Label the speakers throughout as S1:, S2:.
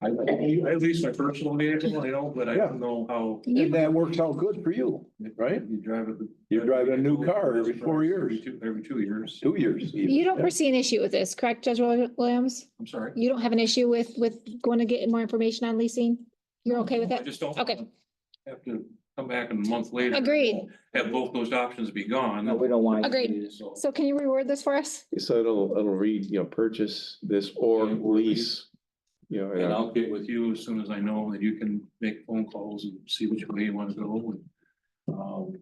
S1: I, at least my personal vehicle, I don't, but I don't know how.
S2: And that works out good for you, right?
S1: You drive it.
S2: You're driving a new car every four years,
S1: Every two, every two years.
S2: two years. even.
S3: You don't foresee an issue with this, correct, Judge Wil- Williams?
S1: I'm sorry.
S3: You don't have an issue with, with going to get more information on leasing? You're okay with
S1: I
S3: that?
S1: just don't.
S3: Okay.
S1: Have to come back in a month later.
S3: Agreed.
S1: Have both those options be gone.
S4: No, we don't want. it to
S3: Agreed.
S4: be-
S1: So
S3: So can you reword this for us?
S5: So it'll, it'll read, you know, purchase this or
S1: Yeah.
S5: lease. You know,
S1: And
S5: and
S1: I'll get with you as soon as I know that you can make phone calls and see which way you want to go and, um.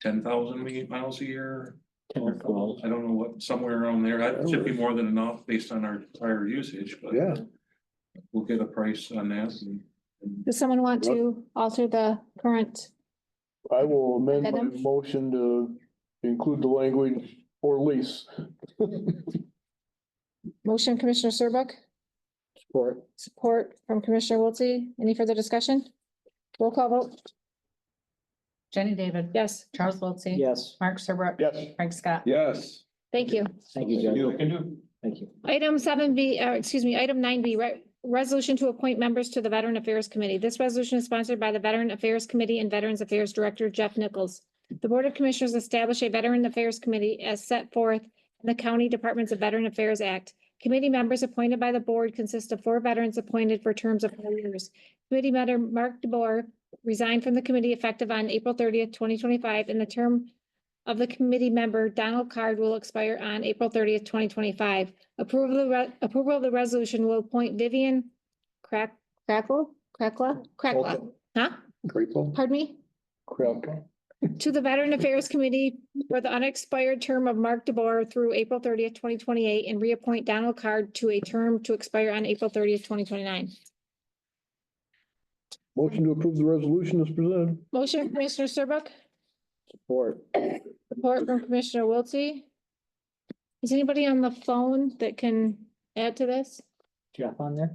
S1: Ten thousand miles a year. I don't know what, somewhere around there. That should be more than enough based on our prior usage, but.
S2: Yeah.
S1: We'll get a price on that and.
S3: Does someone want to alter the current?
S6: I will amend my
S3: Adam?
S6: motion to include the language or lease.
S3: Motion Commissioner Serbuk,
S4: Support.
S3: support from Commissioner Wiltie. Any further discussion? Roll call vote.
S7: Jenny David.
S3: Yes,
S7: Charles Wiltie.
S4: Yes,
S7: Mark Serbrook.
S6: Yes.
S7: Frank Scott.
S2: Yes.
S3: thank you.
S4: thank you, Judge.
S2: You-
S4: Thank you.
S3: Item seven B, uh, excuse me, item nine B, resolution to appoint members to the Veteran Affairs Committee. This resolution is sponsored by the Veteran Affairs Committee and Veterans Affairs Director Jeff Nichols. The Board of Commissioners establish a Veteran Affairs Committee as set forth in the County Departments of Veteran Affairs Act. Committee members appointed by the board consist of four veterans appointed for terms of four years. Committee member Mark DeBoer resigned from the committee effective on April thirtieth, twenty twenty-five, and the term of the committee member Donald Card will expire on April thirtieth, twenty twenty-five. Approval, of the re- approval of the resolution will appoint Vivian Crack, Crackle, Crackla, Crackla, huh?
S2: Grateful.
S3: Pardon me? To the Veteran Affairs Committee for the unexpired term of Mark DeBoer through April thirtieth, twenty twenty-eight, and reappoint Donald Card to a term to expire on April thirtieth, twenty twenty-nine.
S6: Motion to approve the resolution is presented.
S3: Motion Commissioner Serbuk,
S4: Support.
S3: support from Commissioner Wiltie. Is anybody on the phone that can add to this?
S4: Jeff on there?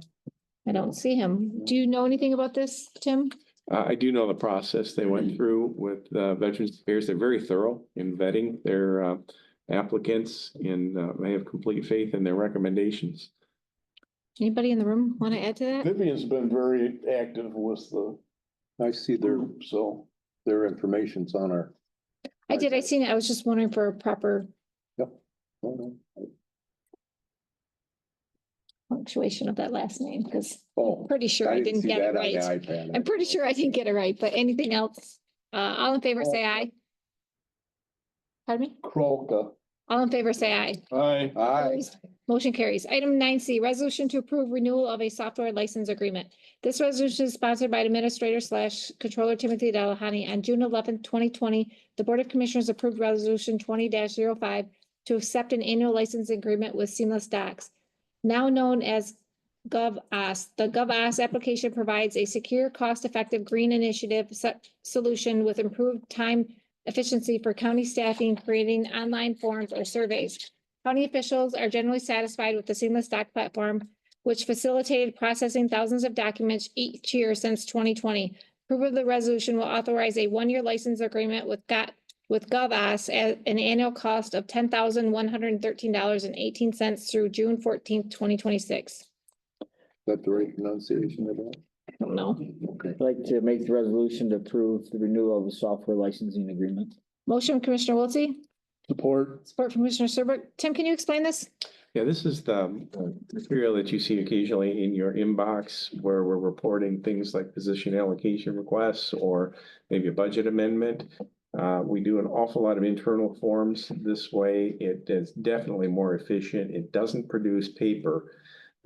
S3: I don't see him. Do you know anything about this, Tim?
S5: I, I do know the process they went through with uh, Veterans Affairs. They're very thorough in vetting their uh, applicants and uh, they have complete faith in their recommendations.
S3: Anybody in the room want to add to that?
S6: Vivian's been very active with the
S2: I see their,
S6: group, so.
S2: their information's on our.
S3: I did, I seen it. I was just wondering for a proper punctuation of that last name, because
S2: Oh.
S3: pretty sure I didn't
S2: see
S3: get it
S2: that on the
S3: right.
S2: iPad.
S3: I'm pretty sure I didn't get it right, but anything else? Uh, all in favor,
S2: Oh.
S3: say aye. Pardon me?
S6: Kralka.
S3: All in favor, say aye.
S6: Aye.
S2: Aye.
S3: Opposed? Motion carries. Item nine C, resolution to approve renewal of a software license agreement. This resolution is sponsored by Administrator slash Controller Timothy Delahoney. On June eleventh, twenty twenty, the Board of Commissioners approved Resolution twenty 5 to accept an annual license agreement with Seamless Docs, now known as GovOS. The GovOS application provides a secure, cost-effective green initiative se- solution with improved time efficiency for county staffing, creating online forms or surveys. County officials are generally satisfied with the seamless doc platform, which facilitated processing thousands of documents each year since twenty twenty. Approval of the resolution will authorize a one-year license agreement with Gov with GovOS at an annual cost of ten thousand one hundred and thirteen dollars and eighteen cents through June fourteenth, twenty twenty-six.
S2: That the right pronunciation of that?
S3: I don't know.
S2: Okay.
S4: I'd like to make the resolution to approve the renewal of the software licensing agreement.
S3: Motion Commissioner Wiltie,
S6: Support.
S3: support from Commissioner Serbrook. Tim, can you explain this?
S5: Yeah, this is the um, material that you see occasionally in your inbox where we're reporting things like position allocation requests or maybe a budget amendment. Uh, we do an awful lot of internal forms this way. It is definitely more efficient. It doesn't produce paper,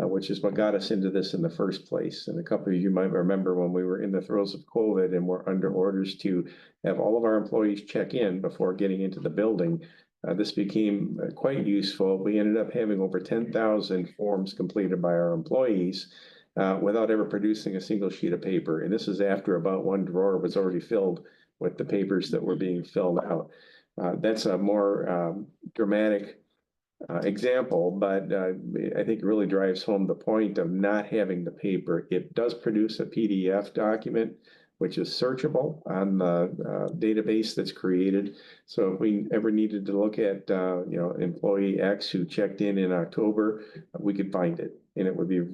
S5: uh, which is what got us into this in the first place. And a couple of you might remember when we were in the throes of COVID and were under orders to have all of our employees check in before getting into the building. Uh, this became uh, quite useful. We ended up having over ten thousand forms completed by our employees uh, without ever producing a single sheet of paper. And this is after about one drawer was already filled with the papers that were being filled out. Uh, that's a more um, dramatic uh, example, but uh, I think it really drives home the point of not having the paper. It does produce a PDF document, which is searchable on the uh, database that's created. So if we ever needed to look at, uh, you know, employee X who checked in in October, we could find it and it would be